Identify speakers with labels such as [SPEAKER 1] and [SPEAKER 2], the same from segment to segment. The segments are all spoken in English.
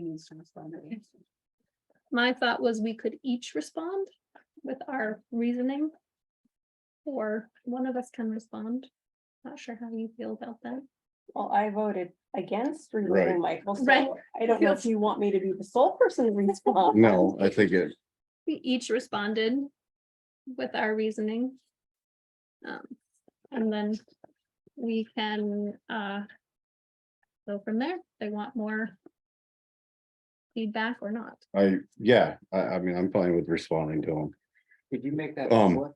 [SPEAKER 1] questions to respond to.
[SPEAKER 2] My thought was we could each respond with our reasoning. Or one of us can respond. Not sure how you feel about that.
[SPEAKER 1] Well, I voted against removing Michael,
[SPEAKER 2] Right.
[SPEAKER 1] so I don't know if you want me to be the sole person to respond.
[SPEAKER 3] No, I think it,
[SPEAKER 2] We each responded with our reasoning. Um, and then we can, uh. Go from there. They want more. Feedback or not.
[SPEAKER 3] I, yeah, I, I mean, I'm fine with responding to them.
[SPEAKER 4] Did you make that?
[SPEAKER 3] Um,
[SPEAKER 4] public?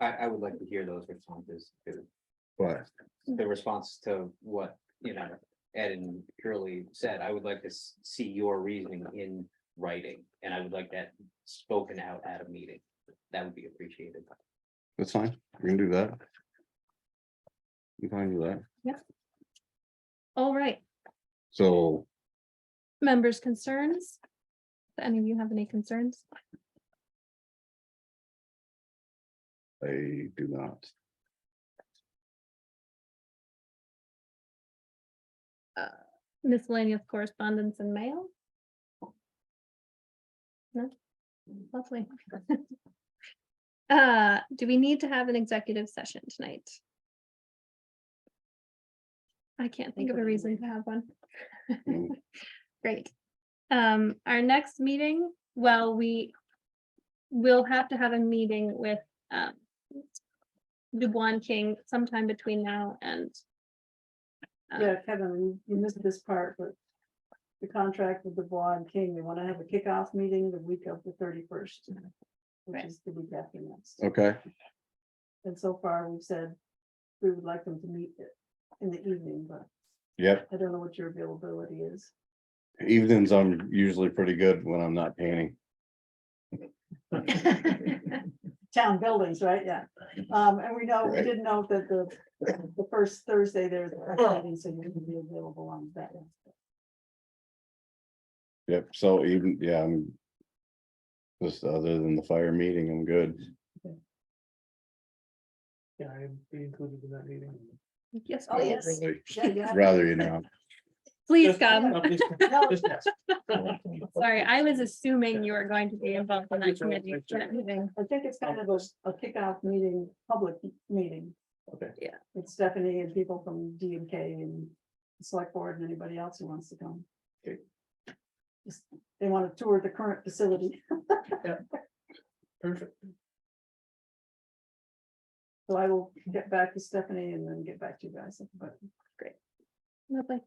[SPEAKER 4] I, I would like to hear those responses, to-
[SPEAKER 3] But
[SPEAKER 4] the response to what, you know, Ed and Shirley said, I would like to s- see your reasoning in writing. And I would like that spoken out at a meeting, that would be appreciated.
[SPEAKER 3] that's fine, we can do that. We can do that.
[SPEAKER 2] All right,
[SPEAKER 3] So
[SPEAKER 2] members' concerns? Do Any of you have any concerns?
[SPEAKER 3] I do not.
[SPEAKER 2] miscellaneous correspondence and mail? No, lovely. Uh, do we need to have an executive session tonight? I can't think of a reason to have one.
[SPEAKER 3] No.
[SPEAKER 2] Great. Um, our next meeting, well, we will have to have a meeting with, um, Dubois King sometime between now and uh,
[SPEAKER 5] Yeah, Kevin, you missed this part, but the contract with Dubois and King, they want to have a kickoff meeting the week of the thirty-first. Which
[SPEAKER 2] Right.
[SPEAKER 5] is the week after next.
[SPEAKER 3] Okay,
[SPEAKER 5] And so far, we've said we would like them to meet in the evening, but
[SPEAKER 3] yep,
[SPEAKER 5] I don't know what your availability is.
[SPEAKER 3] evenings I'm usually pretty good when I'm not painting.
[SPEAKER 5] Town buildings, right? Yeah. Um, and we know, we
[SPEAKER 3] Right.
[SPEAKER 5] did note that the, the first Thursday there's a meeting, so you can be available on that. one.
[SPEAKER 3] Yep, so even, yeah, I'm. Just other than the fire meeting, I'm good.
[SPEAKER 6] Yeah, I'd be included in that meeting.
[SPEAKER 2] Yes,
[SPEAKER 5] Oh,
[SPEAKER 2] please,
[SPEAKER 5] yes.
[SPEAKER 3] Really,
[SPEAKER 5] Yeah, you have-
[SPEAKER 3] Rather, you know,
[SPEAKER 2] please
[SPEAKER 6] Just-
[SPEAKER 2] come.
[SPEAKER 6] I'm just-
[SPEAKER 5] No.
[SPEAKER 6] just ask.
[SPEAKER 2] Sorry, I was assuming you were going to be involved in that
[SPEAKER 6] Thank you.
[SPEAKER 2] committee. that meeting.
[SPEAKER 5] I think it's kind of a, a kickoff meeting, public meeting.
[SPEAKER 6] Okay.
[SPEAKER 2] Yeah.
[SPEAKER 5] With Stephanie and people from D and K and the select board and anybody else who wants to come.
[SPEAKER 6] Okay.
[SPEAKER 5] Just- They want to tour the current facility,
[SPEAKER 6] Perfect.
[SPEAKER 5] so I will get back to Stephanie and then get back to you guys, but
[SPEAKER 2] Lovely.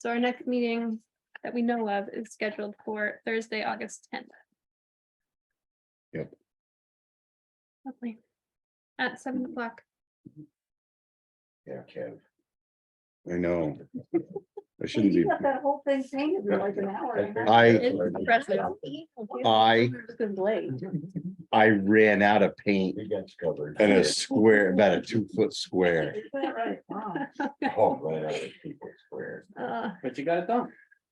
[SPEAKER 2] So our next meeting that we know of is scheduled for Thursday, August tenth.
[SPEAKER 3] Yep.
[SPEAKER 2] Lovely. At seven
[SPEAKER 3] Mm-hmm.
[SPEAKER 2] o'clock.
[SPEAKER 3] yeah, Kev. I know. I shouldn't
[SPEAKER 5] you
[SPEAKER 3] be,
[SPEAKER 5] got that whole thing painted in like an hour. and a half.
[SPEAKER 3] I,
[SPEAKER 2] It's impressive.
[SPEAKER 3] I,
[SPEAKER 1] It's been late.
[SPEAKER 3] I ran out of paint
[SPEAKER 7] We got you covered.
[SPEAKER 3] and a square, about a two foot square.
[SPEAKER 5] Is that right? Wow.
[SPEAKER 7] Oh, right, out of people's squares.
[SPEAKER 2] Uh,
[SPEAKER 4] But you got it done,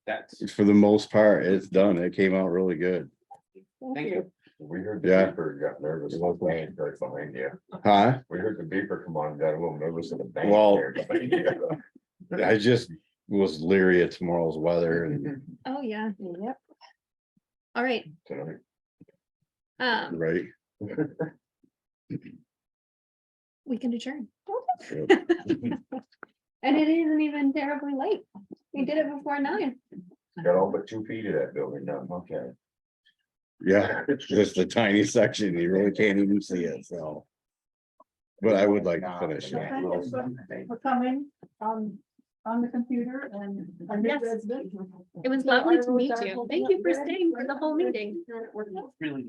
[SPEAKER 4] that's,
[SPEAKER 3] For the most part, it's done. It came out really good.
[SPEAKER 4] thank you.
[SPEAKER 7] We heard the
[SPEAKER 3] Yeah.
[SPEAKER 7] beeper got nervous, it was laying right behind you.
[SPEAKER 3] Huh?
[SPEAKER 7] We heard the beeper come on, got a little nervous in the bank.
[SPEAKER 3] Well-
[SPEAKER 7] there behind you.
[SPEAKER 3] I just was leery of tomorrow's weather and,
[SPEAKER 2] oh, yeah.
[SPEAKER 1] Yep.
[SPEAKER 2] All right.
[SPEAKER 7] Tonight.
[SPEAKER 2] Um,
[SPEAKER 3] right?
[SPEAKER 2] we can adjourn.
[SPEAKER 3] Yep.
[SPEAKER 2] And it isn't even terribly late. We did it before nine.
[SPEAKER 7] Got all but two feet of that building now, okay.
[SPEAKER 3] Yeah, just a tiny section. You really can't even see it, so. But I would like to finish it.
[SPEAKER 5] Thank you for- for coming on, on the computer and. I think
[SPEAKER 2] Yes.
[SPEAKER 5] that's good.
[SPEAKER 2] It was lovely to
[SPEAKER 5] I will
[SPEAKER 2] meet
[SPEAKER 5] dive
[SPEAKER 2] you.
[SPEAKER 5] a
[SPEAKER 2] Thank
[SPEAKER 5] lot
[SPEAKER 2] you for
[SPEAKER 5] more
[SPEAKER 2] staying for the whole meeting.
[SPEAKER 5] into it.
[SPEAKER 6] Really.